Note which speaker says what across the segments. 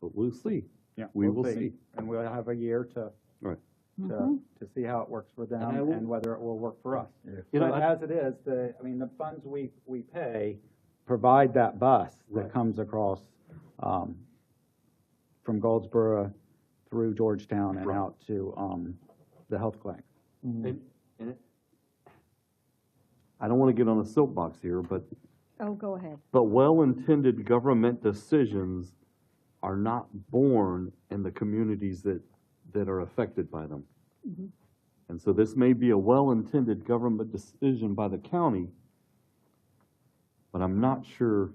Speaker 1: We'll see.
Speaker 2: Yeah.
Speaker 1: We
Speaker 2: we'll
Speaker 1: will see.
Speaker 2: And we'll have a year to,
Speaker 1: Right.
Speaker 2: to,
Speaker 3: Mhm.
Speaker 2: to see how it works for them
Speaker 1: I will-
Speaker 2: and whether it will work for us.
Speaker 1: You know,
Speaker 2: But
Speaker 1: I-
Speaker 2: as it is, the, I mean, the funds we, we pay provide that bus
Speaker 1: Right.
Speaker 2: that comes across, um, from Goldsboro through Georgetown and
Speaker 1: Right.
Speaker 2: out to, um, the health clinic.
Speaker 1: And, and it- I don't want to get on a soapbox here, but,
Speaker 3: Oh, go ahead.
Speaker 1: but well-intended government decisions are not born in the communities that, that are affected by them. And so this may be a well-intended government decision by the county, but I'm not sure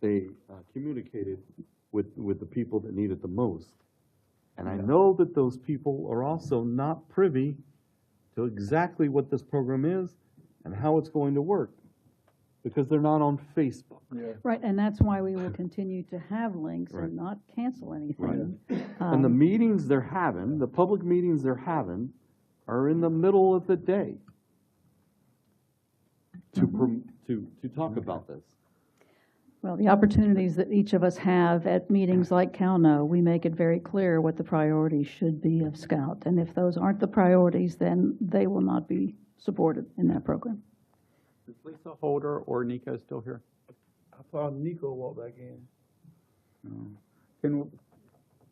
Speaker 1: they uh, communicated with, with the people that need it the most. And I know that those people are also not privy to exactly what this program is and how it's going to work, because they're not on Facebook.
Speaker 3: Right, and that's why we will continue to have links
Speaker 1: Right.
Speaker 3: and not cancel anything.
Speaker 1: And the meetings they're having, the public meetings they're having, are in the middle of the day to, prom- to, to talk about this.
Speaker 3: Well, the opportunities that each of us have at meetings like CalNo, we make it very clear what the priorities should be of Scout. And if those aren't the priorities, then they will not be supported in that program.
Speaker 2: Is Lisa Holder or Nico still here?
Speaker 4: I thought Nico walked back in.
Speaker 2: Can,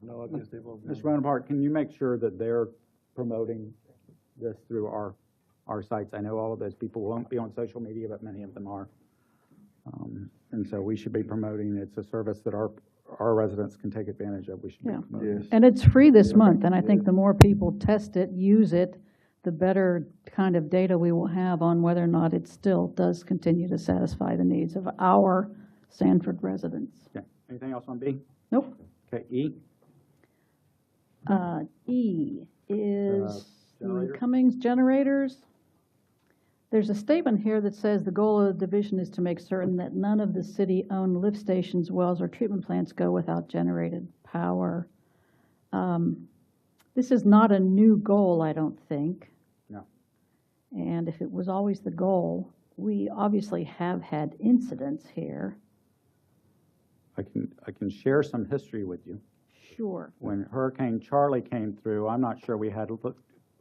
Speaker 4: No, I guess they both.
Speaker 2: Mr. Bonaparte, can you make sure that they're promoting this through our, our sites? I know all of those people won't be on social media, but many of them are. Um, And so we should be promoting, it's a service that our, our residents can take advantage of, we should be
Speaker 3: Yeah.
Speaker 2: promoting.
Speaker 4: Yes.
Speaker 3: And it's free this month, and I think the more people test it, use it, the better kind of data we will have on whether or not it still does continue to satisfy the needs of our Sanford residents.
Speaker 2: Okay. Anything else on B?
Speaker 3: Nope.
Speaker 2: Okay, E?
Speaker 3: Uh, E
Speaker 2: Uh,
Speaker 3: is the
Speaker 2: generator?
Speaker 3: Cummings generators. There's a statement here that says the goal of the division is to make certain that none of the city-owned lift stations, wells, or treatment plants go without generated power. Um, This is not a new goal, I don't think.
Speaker 2: No.
Speaker 3: And if it was always the goal, we obviously have had incidents here.
Speaker 2: I can, I can share some history with you.
Speaker 3: Sure.
Speaker 2: When Hurricane Charlie came through, I'm not sure we had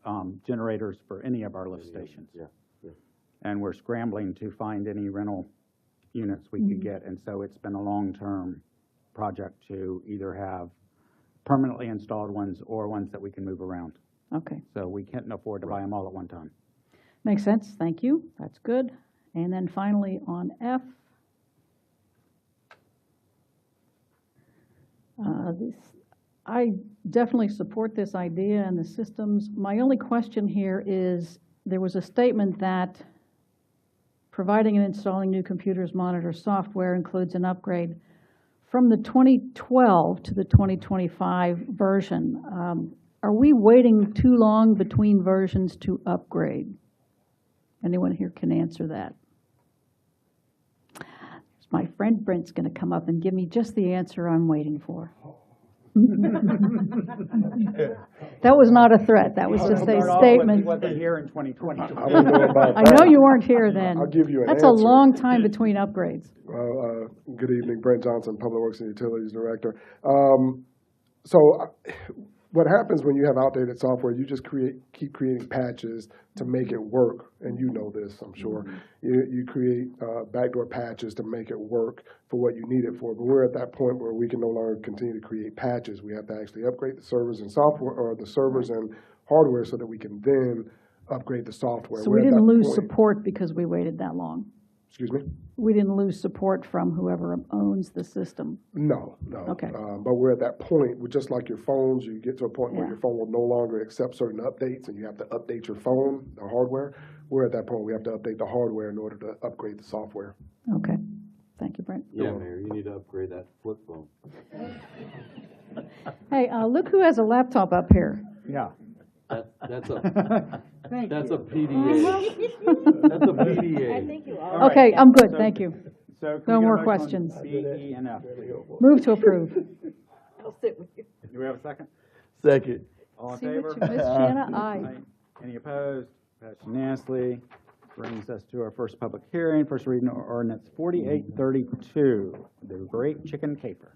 Speaker 2: um, generators for any of our lift stations.
Speaker 1: Yeah.
Speaker 2: and we're scrambling to find any rental units we
Speaker 3: Mm-hmm.
Speaker 2: could get. And so it's been a long-term project to either have permanently installed ones or ones that we can move around.
Speaker 3: Okay.
Speaker 2: So we can't afford to buy them all at one time.
Speaker 3: Makes sense, thank you, that's good. And then finally, on F, uh, this, I definitely support this idea and the systems. My only question here is, there was a statement that providing and installing new computers, monitor software includes an upgrade from the 2012 to the 2025 version. Um, Are we waiting too long between versions to upgrade? Anyone here can answer that. My friend Brent's going to come up and give me just the answer I'm waiting for. That was not a threat, that was just a statement.
Speaker 2: Wasn't here in 2020.
Speaker 4: I don't know about
Speaker 3: I
Speaker 4: that.
Speaker 3: know you weren't here then.
Speaker 4: I'll give you an
Speaker 3: That's a
Speaker 4: answer.
Speaker 3: long time between upgrades.
Speaker 4: Uh, uh, Good evening, Brent Johnson, Public Works and Utilities Director. Um, So uh, what happens when you have outdated software, you just create, keep creating patches to make it work, and you know this, I'm sure. You, you create uh, backdoor patches to make it work for what you need it for, but we're at that point where we can no longer continue to create patches. We have to actually upgrade the servers and software, or the servers and hardware so that we can then upgrade the software.
Speaker 3: So
Speaker 4: We're
Speaker 3: we
Speaker 4: at
Speaker 3: didn't
Speaker 4: that
Speaker 3: lose
Speaker 4: point-
Speaker 3: support because we waited that long.
Speaker 4: Excuse me?
Speaker 3: We didn't lose support from whoever owns the system.
Speaker 4: No, no.
Speaker 3: Okay.
Speaker 4: Um, But we're at that point, we're just like your phones, you get to a point where
Speaker 3: Yeah.
Speaker 4: your phone will no longer accept certain updates and you have to update your phone, the hardware. We're at that point, we have to update the hardware in order to upgrade the software.
Speaker 3: Okay, thank you, Brent.
Speaker 1: Yeah, Mayor, you need to upgrade that flip phone.
Speaker 3: Hey, uh, look who has a laptop up here.
Speaker 2: Yeah.
Speaker 1: That, that's a,
Speaker 3: Thank
Speaker 1: that's a PDA. That's a PDA.
Speaker 5: Thank you all.
Speaker 2: All right.
Speaker 3: Okay, I'm good,
Speaker 2: So-
Speaker 3: thank you.
Speaker 2: So can we get
Speaker 3: No
Speaker 2: a
Speaker 3: more
Speaker 2: motion on
Speaker 3: questions.
Speaker 2: B, E, and F.
Speaker 3: Move to approve.
Speaker 5: I'll sit with you.
Speaker 2: Do we have a second?
Speaker 1: Second.
Speaker 2: All in
Speaker 3: See what
Speaker 2: favor?
Speaker 3: you missed, Shanna? Aye.
Speaker 2: Any opposed? Passed unanimously. Brings us to our first public hearing, first reading of ordinance forty-eight thirty-two, the great chicken caper.